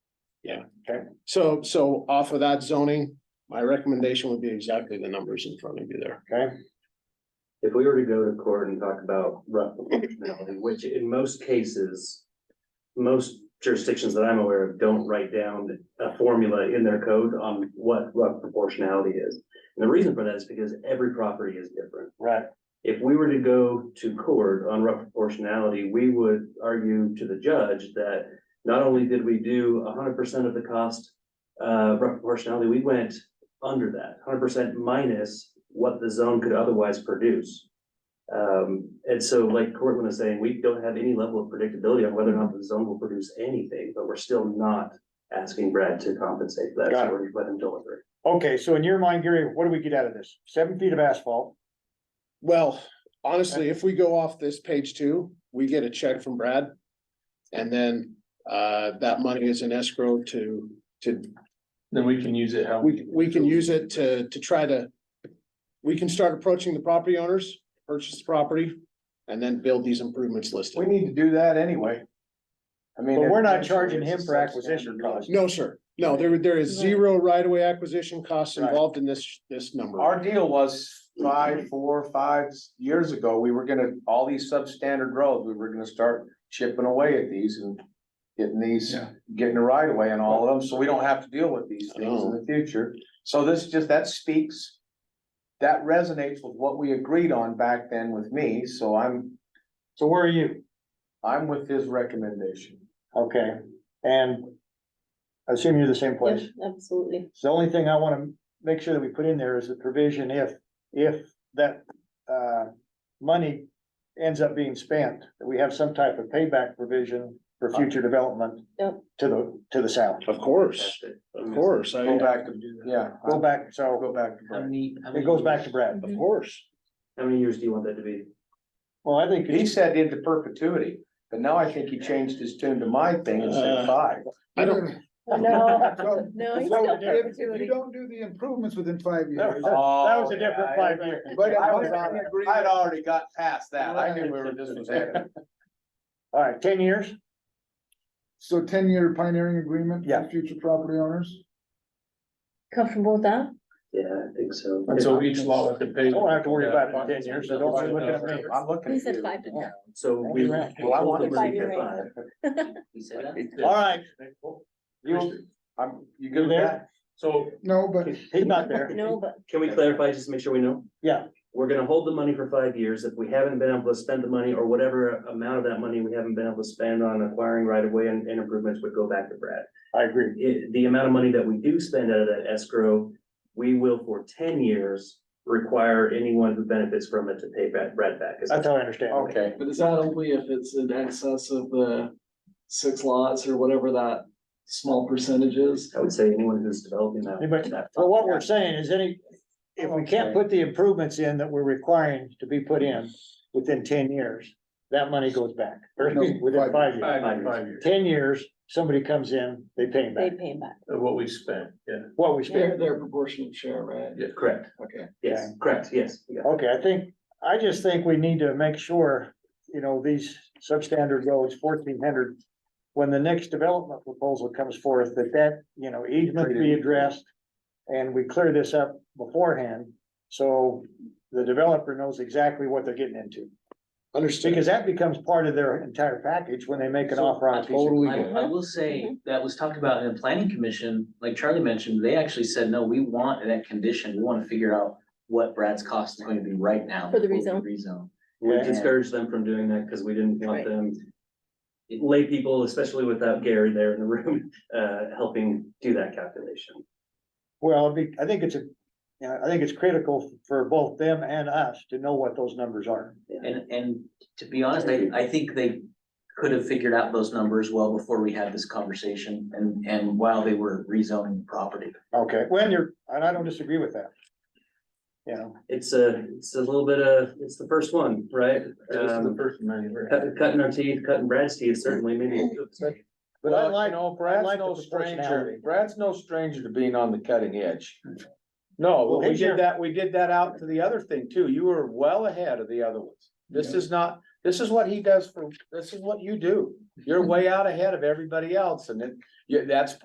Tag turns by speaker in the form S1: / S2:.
S1: Yeah, okay. So, so off of that zoning, my recommendation would be exactly the numbers in front of you there, okay?
S2: If we were to go to court and talk about rough proportionality, which in most cases. Most jurisdictions that I'm aware of don't write down a formula in their code on what rough proportionality is. And the reason for that is because every property is different.
S1: Right.
S2: If we were to go to court on rough proportionality, we would argue to the judge that. Not only did we do hundred percent of the cost, uh, rough proportionality, we went under that, hundred percent minus what the zone could otherwise produce. Um, and so like Cortland is saying, we don't have any level of predictability on whether or not the zone will produce anything, but we're still not asking Brad to compensate for that,
S3: Got
S2: so
S3: it.
S2: we're letting him deliver.
S3: Okay, so in your mind, Gary, what do we get out of this? Seven feet of asphalt,
S1: Well, honestly, if we go off this page two, we get a check from Brad. And then, uh, that money is in escrow to, to,
S4: Then we can use it how.
S1: we, we can use it to, to try to. We can start approaching the property owners, purchase the property, and then build these improvements
S4: We
S1: listed.
S4: need to do that anyway. I mean.
S3: but we're not
S4: if-
S3: charging him for acquisition costs.
S1: No, sir. No, there, there is zero right-of-way acquisition costs involved in this, this number.
S4: Our deal was five, four, five years ago, we were gonna, all these substandard roads, we were gonna start chipping away at these and. Getting these,
S5: Yeah.
S4: getting a right away on all of them, so we don't have to deal with these things in the future. So this just, that speaks. That resonates with what we agreed on back then with me, so I'm. So where are you? I'm with his recommendation.
S5: Okay, and I assume you're the same place.
S6: Yep, Absolutely.
S5: So the only thing I wanna make sure that we put in there is the provision if, if that, uh, money ends up being spent, that we have some type of payback provision for future development
S6: Yep.
S5: to the, to the south.
S1: Of course, of course, I,
S4: Go
S1: of
S4: back to, yeah,
S5: Go back, so
S4: go back to Brad.
S5: it goes back to Brad.
S6: Mhm.
S1: course.
S2: How many years do you want that to be?
S5: Well, I think he said into perpetuity, but now I think he changed his tune to my thing and
S1: Uh,
S5: said five.
S1: I don't,
S6: No,
S5: So-
S6: no, it's
S5: so
S6: still
S5: if- if
S6: perpetuity.
S7: don't do the improvements within five years.
S5: That was a
S4: Oh,
S5: different five year.
S7: But
S5: I
S7: I
S5: was on it. I'd already got past that. I knew we were just was headed. All right, ten years?
S7: So ten-year pioneering agreement
S5: Yeah.
S7: for future property owners?
S6: Comfortable with that?
S2: Yeah, I think so.
S4: And so each lot has to pay.
S5: I don't have to worry about it in ten years, so don't look at me. I'm looking
S6: He
S5: at
S6: said
S5: you.
S6: five to ten.
S2: So we.
S5: Well, I want to
S6: Five
S5: see
S6: year
S5: it.
S6: rate.
S2: You said that?
S5: All right. You, I'm, you good with that?
S4: So
S7: No, but
S5: He's not there.
S6: No, but
S2: Can we clarify, just to make sure we know?
S5: Yeah.
S2: We're gonna hold the money for five years. If we haven't been able to spend the money or whatever amount of that money we haven't been able to spend on acquiring right of way and, and improvements would go back to Brad.
S5: I agree.
S2: It- the amount of money that we do spend out of that escrow, we will for ten years require anyone who benefits from it to pay Brad, Brad back. Is
S5: That's how I understand. it.
S3: Okay,
S8: But is that only if it's in excess of the six lots or whatever that small percentage is?
S2: I would say anyone who's developing that.
S5: Anybody-
S2: that-
S5: So what we're saying is any, if we can't put the improvements in that we're requiring to be put in within ten years, that money goes back, or
S7: No,
S5: within
S7: five
S5: five years.
S2: Five years.
S4: five years,
S5: Ten years, somebody comes in, they pay him
S6: they
S5: back,
S6: pay him back.
S4: of what we spent, yeah.
S5: what we spent.
S8: Their, their proportionate share, right?
S2: Correct.
S8: Okay.
S2: Yes, correct. Yes. You got it.
S5: Okay, I think, I just think we need to make sure, you know, these substandard roads, fourteen hundred. When the next development proposal comes forth, that that, you know, easement be addressed. And we clear this up beforehand, so the developer knows exactly what they're getting into.
S1: understand,
S5: Because that becomes part of their entire package when they make an
S9: So,
S5: offer on a piece of.
S1: totally. get it.
S9: I, I will
S6: Mm-hmm.
S9: say, that was talked about in the planning commission, like Charlie mentioned, they actually said, no, we want that condition, we wanna figure out what Brad's cost is going to be right now.
S6: For the
S9: before we Rezone.
S2: We
S5: Yeah.
S2: discouraged them from doing that because we didn't want
S6: Right.
S2: them. Lay people, especially without Gary there in the room, uh, helping do that calculation.
S5: Well, it'd be- I think it's a, you know, I think it's critical for both them and us to know what those numbers are.
S9: And, and to be honest, I, I think they could have figured out those numbers well before we had this conversation and, and while they were rezoning the property.
S5: Okay, when you're, and I don't disagree with that. You know,
S2: It's a, it's a little bit of, it's the first one, right?
S4: This is the
S2: Um,
S4: first money.
S2: cut- cutting our teeth, cutting Brad's teeth, certainly, maybe.
S5: but I
S4: Well, you
S5: like,
S4: know,
S5: like
S4: Brad's
S5: the
S4: no
S5: proportionality.
S4: stranger, Brad's no stranger to being on the cutting edge. No,
S5: Well,
S4: but we
S5: his year-
S4: did that, we did that out to the other thing too. You were well ahead of the other ones. This is not, this is what he does for, this is what you do. You're way out ahead of everybody else and it, yeah, that's